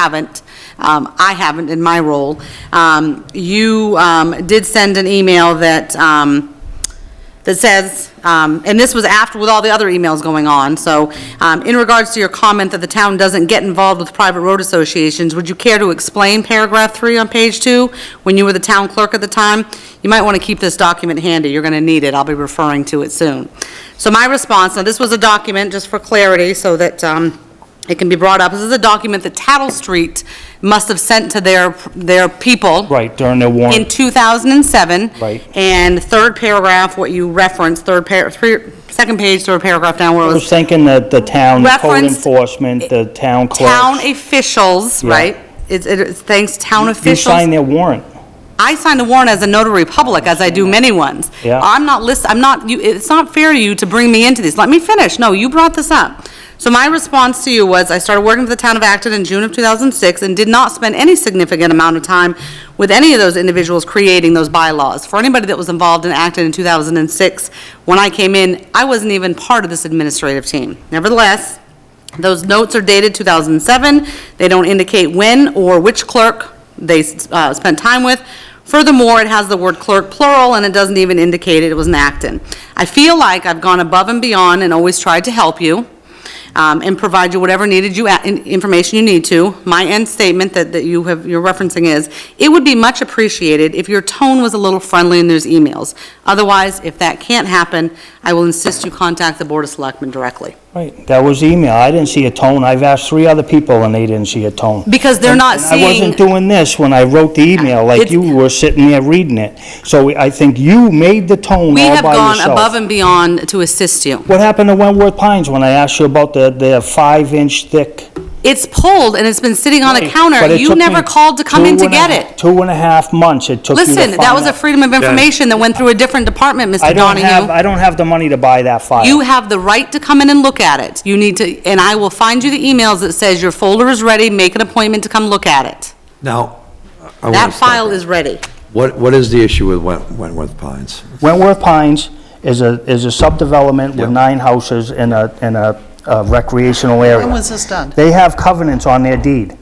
haven't. Um, I haven't in my role. Um, You um, did send an email that, um, that says, um, and this was after, with all the other emails going on, so um, in regards to your comment that the town doesn't get involved with private road associations, would you care to explain paragraph three on page two, when you were the town clerk at the time? You might want to keep this document handy, you're going to need it, I'll be referring to it soon. So my response, now this was a document, just for clarity, so that um, it can be brought up, this is a document that Tattle Street must have sent to their, their people. Right, during the In warrant, 2007. Right. And third paragraph, what you referenced, third par, three, second page, third paragraph down where it I was was thinking that the town code Referenced- enforcement, the town town clerk. officials, Yeah. right? It's, it's thanks town You sign officials. their warrant. I signed a warrant as a notary public, as I do many ones. Yeah. I'm not list, I'm not, you, it's not fair to you to bring me into this. Let me finish. No, you brought this up. So my response to you was, I started working for the town of Acton in June of 2006 and did not spend any significant amount of time with any of those individuals creating those bylaws. For anybody that was involved in Acton in 2006, when I came in, I wasn't even part of this administrative team. Nevertheless, those notes are dated 2007. They don't indicate when or which clerk they uh, spent time with. Furthermore, it has the word clerk plural, and it doesn't even indicate it was an Acton. I feel like I've gone above and beyond and always tried to help you um, and provide you whatever needed you, uh, in- information you need to. My end statement that, that you have, you're referencing is, it would be much appreciated if your tone was a little friendly in those emails. Otherwise, if that can't happen, I will insist you contact the Board of Selectmen directly. Right, that was email. I didn't see a tone. I've asked three other people and they didn't see a tone. Because they're not And seeing. I wasn't doing this when I wrote the email, like It's- you were sitting there reading it. So I think you made the tone We all have by gone above yourself. and beyond to assist you. What happened to Wentworth Pines when I asked you about the, the five-inch thick? It's pulled and it's been sitting on a counter. But it You took never me called to come two in to and a get half- it. Two and a half months it took you to Listen, that find was a out. freedom of information that went through a different department, I Mr. don't have, Donahue. I don't have the money to buy that file. You have the right to come in and look at it. You need to, and I will find you the emails that says your folder is ready, make an appointment to come look at it. Now, I want That to stop. file is ready. What, what is the issue with Went- Wentworth Pines? Wentworth Pines is a, is a subdevelopment Yep. with nine houses in a, in a a recreational area. When was this done? They have covenants on their deed,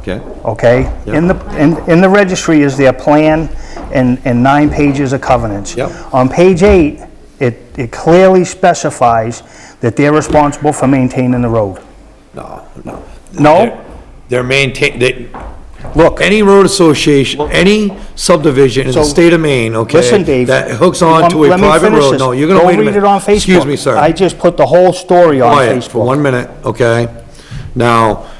Okay? okay? In the, in, in the registry is their plan and, and nine pages of covenants. Yep. On page eight, it, it clearly specifies that they're responsible for maintaining the road. No, no. No? They're maintain, they, Look, any road association, any subdivision in the So, state of Maine, okay? listen, Dave. That hooks on um, to a let me private finish road, this. no, you're gonna wait a minute. Don't read it on Facebook. Excuse me, sir. I just put the whole story on quiet for Facebook. one minute, okay? Now,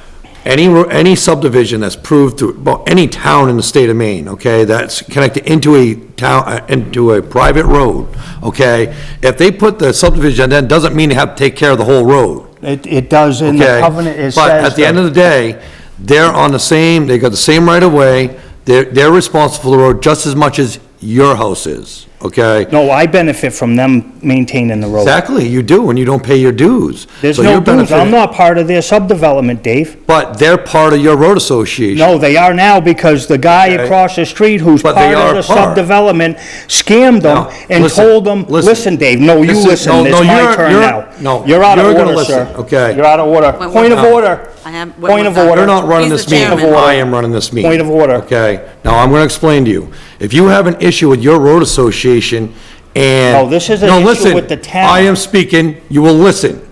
any, ro- any subdivision that's proved through, well, any town in the state of Maine, okay, that's connected into a town, uh, into a private road, okay? If they put the subdivision, then doesn't mean they have to take care of the whole road, It, it does, in the okay? covenant, it says. But at the end of the day, they're on the same, they got the same right of way, they're, they're responsible for the road just as much as your house is, okay? No, I benefit from them maintaining the road. Exactly, you do, when you don't pay your dues. There's So you're no dues, I'm benefiting. not part of their subdevelopment, Dave. But they're part of your road association. No, they are now because the guy Okay. across the street who's But part they of are the part. subdevelopment scammed No, them and listen, told them, listen. listen, Dave, no, you This is- listen, no, it's no, my you're- turn you're- now. no, You're out of you're gonna order, listen, sir. okay. You're out of order. Wait, wait, Point of no. order. I have- wait, Point wait, of no. order. They're not running He's this the meeting. chairman. I am running this meeting. Point of order. Okay? Now, I'm going to explain to you. If you have an issue with your road association and... No, this is an No, issue listen, with the town. I am speaking, you will listen.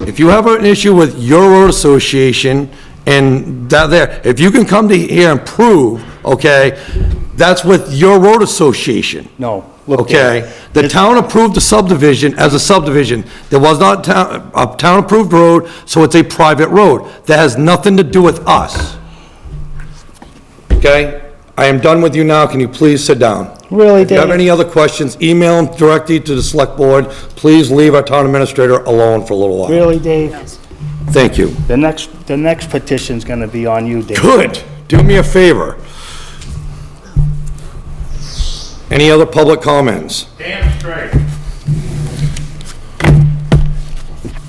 If you have an issue with your road association and that there, if you can come to here and prove, okay, that's with your road association. No, look, Dave. Okay, the town approved the subdivision as a subdivision. There was not town, a town-approved road, so it's a private road. That has nothing to do with us. Okay? I am done with you now. Can you please sit down? Really, If you have Dave? any other questions, email them directly to the select board. Please leave our town administrator alone for a little while. Really, Dave? Thank you. The next, the next petition's gonna be on you, Dave. Good. Do me a favor. Any other public comments? Damn straight.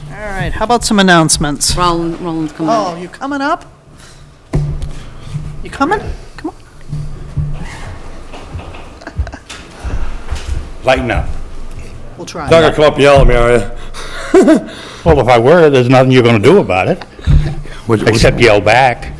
All right, how about some announcements? Roland, Roland's coming. Oh, you coming up? You coming? Come on. Lighten up. We'll try. Not gonna come up and yell at me, are you? Well, if I were, there's nothing you're gonna do about it. What- what- except yell back.